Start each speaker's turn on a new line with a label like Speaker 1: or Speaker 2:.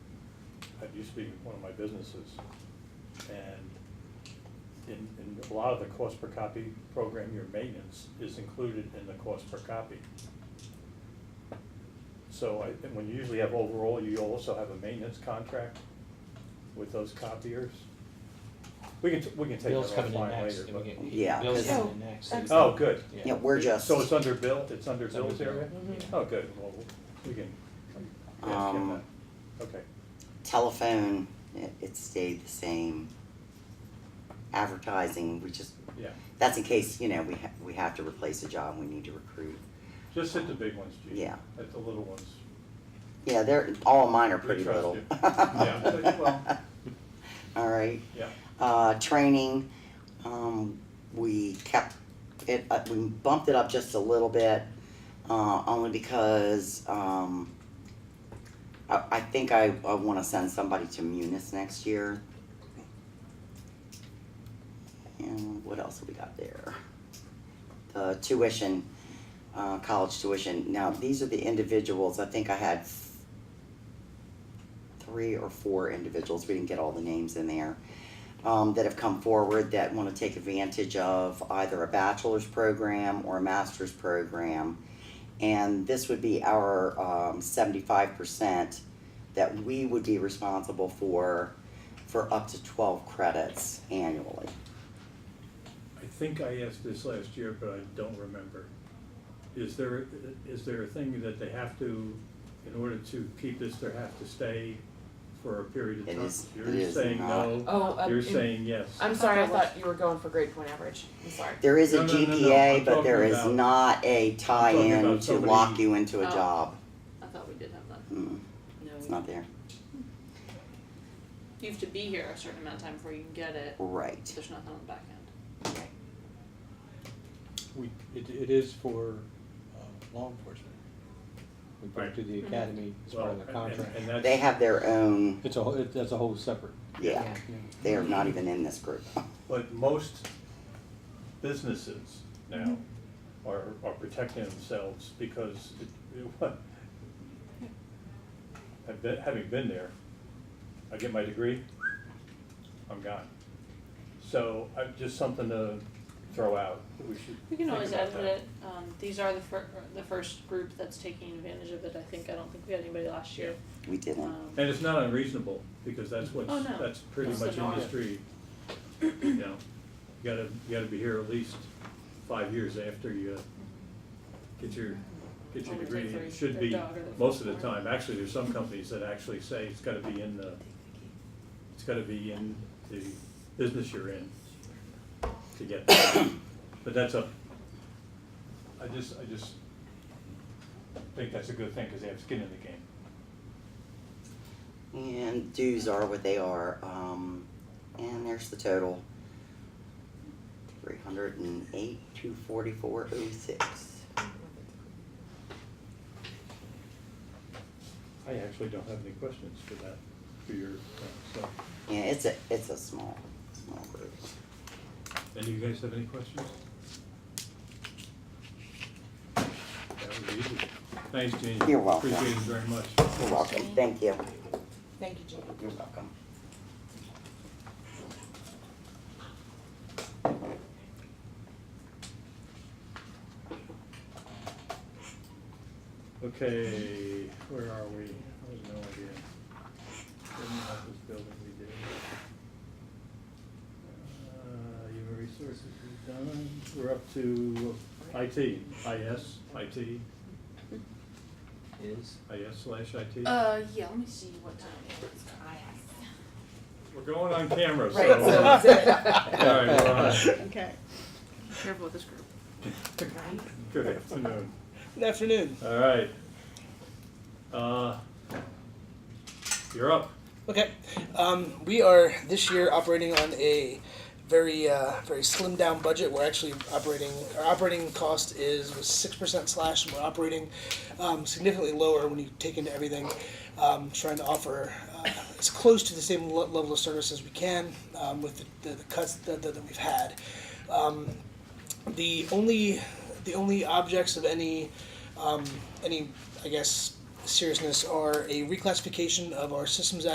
Speaker 1: used to be one of my businesses. And in, in a lot of the cost per copy program, your maintenance is included in the cost per copy. So I, and when you usually have overall, you also have a maintenance contract with those copiers. We can, t- we can take that
Speaker 2: Bill's coming in
Speaker 1: offline
Speaker 2: next,
Speaker 1: later,
Speaker 2: and we
Speaker 1: but.
Speaker 2: can,
Speaker 3: Yeah,
Speaker 2: Bill's
Speaker 3: 'cause-
Speaker 2: coming in next. so-
Speaker 1: Oh, good.
Speaker 3: Yeah, we're
Speaker 1: It-
Speaker 3: just-
Speaker 1: So it's under Bill, it's under
Speaker 2: It's under
Speaker 1: Bill's
Speaker 2: Bill.
Speaker 1: area?
Speaker 2: Mhm.
Speaker 1: Oh, good, well, we can, we ask him
Speaker 3: Um,
Speaker 1: that. Okay,
Speaker 3: Telephone, it, it stayed the same. Advertising, we just,
Speaker 1: yeah,
Speaker 3: that's in case, you know, we ha- we have to replace a job, we need to recruit.
Speaker 1: just hit the big ones, Gene.
Speaker 3: Yeah.
Speaker 1: At the little ones.
Speaker 3: Yeah, they're, all mine are
Speaker 1: We
Speaker 3: pretty
Speaker 1: trust
Speaker 3: little.
Speaker 1: you. Yeah, well,
Speaker 3: All right,
Speaker 1: yeah,
Speaker 3: uh, training, um, we kept it, uh, we bumped it up just a little bit, uh, only because, um, I, I think I, I wanna send somebody to Munis next year. And what else have we got there? The tuition, uh, college tuition, now, these are the individuals, I think I had three or four individuals, we didn't get all the names in there, um, that have come forward that want to take advantage of either a bachelor's program or a master's program. And this would be our um, 75% that we would be responsible for for up to 12 credits annually.
Speaker 1: I think I asked this last year, but I don't remember. Is there, is there a thing that they have to, in order to keep this, they have to stay for a period of
Speaker 3: It
Speaker 1: time?
Speaker 3: is- it is
Speaker 1: You're saying
Speaker 3: not.
Speaker 1: no,
Speaker 4: Oh, uh,
Speaker 1: you're
Speaker 4: in-
Speaker 1: saying yes.
Speaker 4: I'm sorry, I thought you were going for grade point average. I'm sorry.
Speaker 3: There is
Speaker 1: No,
Speaker 3: a
Speaker 1: no, no,
Speaker 3: GPA,
Speaker 1: no, I'm
Speaker 3: but there
Speaker 1: talking
Speaker 3: is
Speaker 1: about-
Speaker 3: not a tie
Speaker 1: talking
Speaker 3: in
Speaker 1: about
Speaker 3: to
Speaker 1: somebody-
Speaker 3: lock you into a
Speaker 5: Oh.
Speaker 3: job.
Speaker 5: I thought we did have that.
Speaker 3: Mm, it's
Speaker 5: No,
Speaker 3: not there.
Speaker 5: you have to be here a certain amount of time before you can get it.
Speaker 3: Right.
Speaker 5: There's nothing on the back end.
Speaker 2: We, it, it is for, uh, law enforcement. We put it to the
Speaker 5: Mhm.
Speaker 2: academy as part of the
Speaker 1: Well, and-
Speaker 2: contract.
Speaker 1: And that's.
Speaker 3: They have their own,
Speaker 2: It's a, whole- it, that's a whole separate.
Speaker 3: yeah,
Speaker 4: Yeah.
Speaker 2: yeah.
Speaker 3: they are not even in this group.
Speaker 1: But most businesses now
Speaker 5: Mm-hmm.
Speaker 1: are, are protecting themselves because it, it, what? I've been, having been there, I get my degree, I'm gone. So I, just something to throw out, we should
Speaker 5: We can
Speaker 1: think
Speaker 5: always
Speaker 1: about
Speaker 5: add
Speaker 1: that.
Speaker 5: it. Um, these are the fir- the first group that's taking advantage of it. I think, I don't think we had anybody last year.
Speaker 3: We didn't.
Speaker 5: Um,
Speaker 1: And it's not unreasonable, because that's what's,
Speaker 5: Oh, no.
Speaker 1: that's pretty
Speaker 5: That's the
Speaker 1: much
Speaker 5: norm.
Speaker 1: industry, you know. You gotta, you gotta be here at least five years after you get your, get your
Speaker 5: Or we
Speaker 1: degree.
Speaker 5: take
Speaker 1: and It
Speaker 5: their-
Speaker 1: should
Speaker 5: their
Speaker 1: be,
Speaker 5: dog or their
Speaker 1: most of the
Speaker 5: farm.
Speaker 1: time, actually, there's some companies that actually say it's gotta be in the, it's gotta be in the business you're in to get that. But that's a, I just, I just think that's a good thing, because they have skin in the game.
Speaker 3: And dues are what they are, um, and there's the total. Three hundred and eight, two forty-four, oh six.
Speaker 1: I actually don't have any questions for that, for your, uh, so,
Speaker 3: Yeah, it's a, it's a small, small group.
Speaker 1: any of you guys have any questions? That was easy. Thanks, Gene.
Speaker 3: You're welcome.
Speaker 1: Appreciate it very much.
Speaker 3: You're welcome, thank you.
Speaker 4: Thank you, Jean.
Speaker 3: You're welcome.
Speaker 1: Okay, where are we? I have no idea. Didn't have this building we did. Uh, Human resources we've done, we're up to IT, IS, IT,
Speaker 2: Is,
Speaker 1: IS slash IT.
Speaker 5: Uh, yeah, let me see what time it is. I
Speaker 1: We're going on camera, so.
Speaker 4: Right, so
Speaker 1: All right, we're on.
Speaker 6: Okay.
Speaker 5: Careful with this group.
Speaker 1: Good afternoon.
Speaker 6: Good afternoon.
Speaker 1: All right. Uh, You're up.
Speaker 6: Okay. Um, we are this year operating on a very uh, very slimmed down budget. We're actually operating our operating cost is was six percent slash, and we're operating um, significantly lower when you take into everything. Um, trying to offer uh, as close to the same le- level of service as we can um, with the, the, the cuts that, that, that we've had. Um, the only the only objects of any um, any I guess seriousness are a reclassification of our systems